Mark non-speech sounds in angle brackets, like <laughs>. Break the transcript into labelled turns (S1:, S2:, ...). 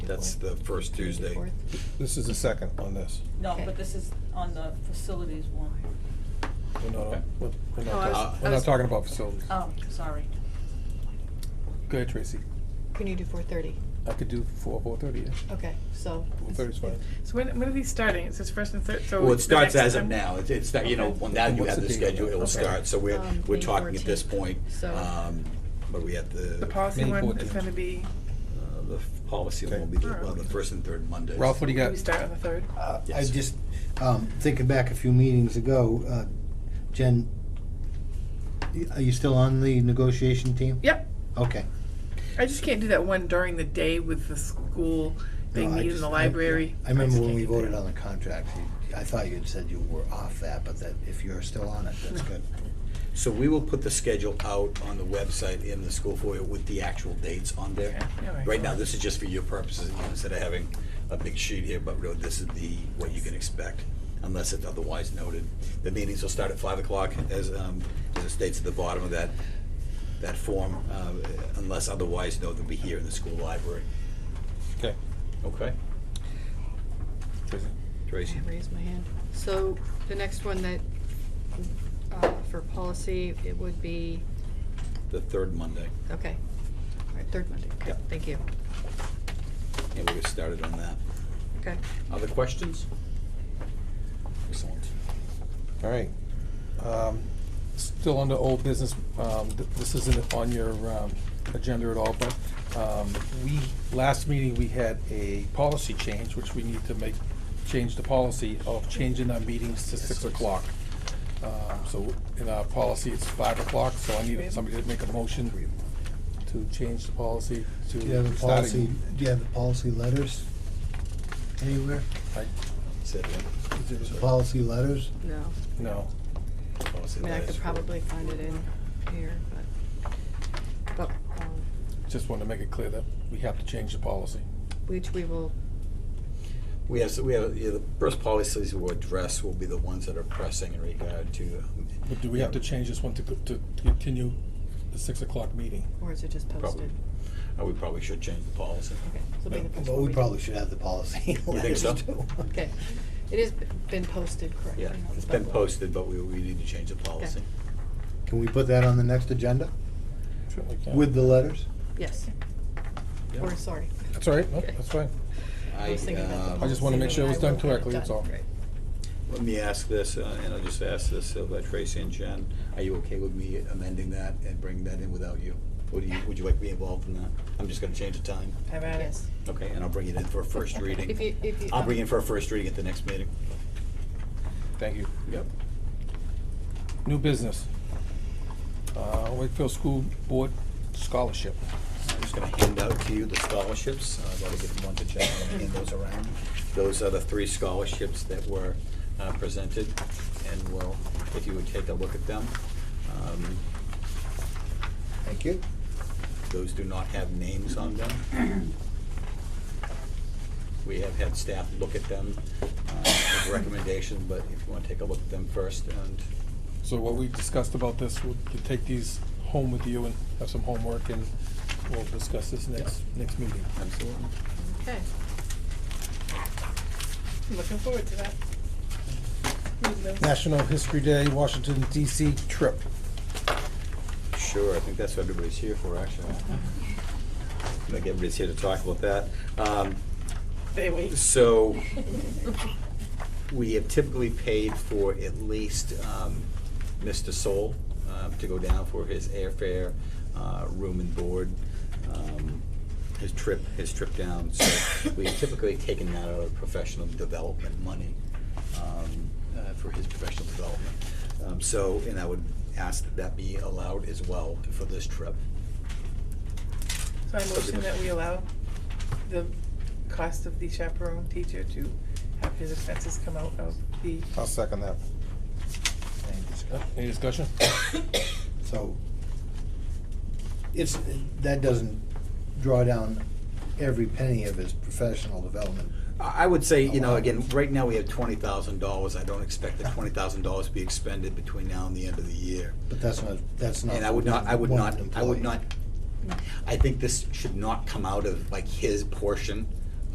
S1: That's the first Tuesday.
S2: This is the second on this.
S3: No,
S4: Okay.
S3: but this is on the facilities one.
S2: We're not,
S5: Okay.
S2: we're we're
S4: No, I
S2: not,
S4: was-
S2: talk-
S4: I
S2: we're not
S4: was-
S2: talking about facilities.
S3: Oh, sorry.
S2: Go ahead, Tracy.
S4: Can you do four thirty?
S2: I could do four, four thirty, yeah.
S4: Okay, so.
S2: Four thirty's fine.
S6: So when, when are these starting? It says first and third, so.
S1: Well, it
S6: the
S1: starts
S6: next
S1: as of
S6: time-
S1: now, it's, it's, not- you know,
S6: Okay.
S1: when that, you
S2: What's
S1: have
S2: the
S1: the
S2: date on
S1: schedule,
S2: that?
S1: it will
S2: Okay.
S1: start, so we're,
S4: Um,
S1: we're
S4: May
S1: talking at this
S4: 14th,
S1: point.
S4: so-
S1: Um, but we have the.
S6: The policy
S2: May
S6: one is
S2: 14th.
S6: gonna be,
S1: uh, The f- policy will be, the- well, the first and third Mondays.
S2: Ralph, what do you
S6: we
S2: got?
S6: start on the third.
S7: Uh, I
S1: Yes.
S7: just, um, thinking back a few meetings ago, uh, Jen, y- are you still on the negotiation team?
S6: Yep,
S7: Okay.
S6: I just can't do that one during the day with the school, they
S7: No, I
S6: meet in
S7: just-
S6: the
S7: I-
S6: library.
S7: I remember
S6: just
S7: when
S6: can't
S7: we
S6: do that.
S7: voted on the contract, you- I thought you'd said you were off that, but that if you're still on it, that's good.
S1: So we will put the schedule out on the website in the school foyer with the actual dates on there.
S6: Okay, all right.
S1: Right now, this is just for your purposes, you know, instead of having a big sheet here, but really, this is the, what you can expect, unless it's otherwise noted. The meetings will start at five o'clock, as, um, as it states at the bottom of that, that form, uh, unless otherwise noted, they'll be here in the school library.
S2: Okay.
S1: Okay.
S2: Tracy.
S1: Tracy?
S4: I raised my hand. So the next one that, uh, for policy, it would be,
S1: The third Monday,
S4: okay. All right, third Monday.
S1: Yep.
S4: Thank you.
S1: and we'll get started on that.
S4: Okay.
S1: Other questions? Excellent.
S2: All right. Um, Still under old business, um, th- this isn't on your um, agenda at all, but um, we, last meeting, we had a policy change, which we need to make, change the policy of changing our meetings to six o'clock. Um, So in our policy, it's five o'clock, so I need somebody to make a motion to change the policy to.
S7: <laughs> Do you have the policy,
S2: starting-
S7: do you have the policy letters anywhere?
S2: I-
S1: Said one.
S2: is it-
S7: The policy letters?
S4: No,
S2: No.
S4: I
S1: Policy
S4: mean, I
S1: that
S4: could
S1: is-
S4: probably find it in here, but, but, um,
S2: Just want to make it clear that we have to change the policy.
S4: which we will,
S1: We have, so we have, yeah, the first policies we'll address will be the ones that are pressing in regard to. um,
S2: But do we have to change this one to, go- to continue the six o'clock meeting?
S4: or is it just
S1: Probably.
S4: posted?
S1: uh, We probably should change the policy.
S4: Okay, so it'll be the first
S7: Well,
S4: one
S7: we
S4: do.
S7: probably should have the policy
S1: think
S7: letters
S1: so?
S7: too.
S4: Okay. It has been posted, correct?
S1: Yeah, it's been posted, but we, we need to change the policy.
S7: Can we put that on the next agenda
S2: Certainly can.
S7: with the letters?
S4: Yes,
S1: Yeah.
S4: or sorry.
S2: That's all right, no, that's fine.
S4: I was thinking about the
S1: um,
S2: I just wanna
S4: policy,
S2: make sure it was
S4: but I
S2: done
S4: will get it
S2: correctly, that's
S4: done.
S2: all.
S4: Right.
S1: Let me ask this, uh, and I'll just ask this of uh, Tracy and Jen. Are you okay with me amending that and bringing that in without you? Or do you, would you like me involved in that? I'm just gonna change the time.
S6: Have at it.
S4: Yes.
S1: Okay, and I'll bring it in for a first
S4: <laughs>
S1: reading.
S4: If you, if you.
S1: I'll bring it for a first reading at the next meeting.
S2: Thank you.
S1: Yep.
S2: New business. Uh, Wakefield School Board Scholarship.
S1: I'm just gonna hand out to you the scholarships. Uh, I've already given one to Jen, I'm gonna hand those around. Those are the three scholarships that were uh, presented, and we'll, if you would take a look at them. Um,
S7: Thank you.
S1: Those do not have names on them.
S7: <clears throat>
S1: We have had staff look at them, uh, with recommendations, but if you wanna take a look at them first, and
S2: So what we discussed about this, we can take these home with you and have some homework, and we'll discuss this next, next meeting.
S1: Absolutely.
S4: Okay.
S6: I'm Looking forward to that. Reading those.
S2: National History Day, Washington DC trip.
S1: Sure, I think that's what everybody's here for, actually. Like, everybody's here to talk about that. Um,
S6: They wait.
S1: So, we have typically paid for at least um, Mr. Soul uh, to go down for his airfare, uh, room and board, um, his trip, his trip down. So we've typically taken that out of professional development money um, uh, for his professional development. Um, So, and I would ask that that be allowed as well for this trip.
S6: So I motion that we allow the cost of the chaperone teacher to have his expenses come out of the,
S2: I'll second that. Any discussion?
S7: So it's, that doesn't draw down every penny of his professional development.
S1: I I would say, you know, again, right now we have twenty thousand dollars. I don't expect the twenty thousand dollars to be expended between now and the end of the year.
S7: But that's not, that's not.
S1: And I would not, I would
S7: one
S1: not, I would
S7: employee.
S1: not, I think this should not come out of like his portion.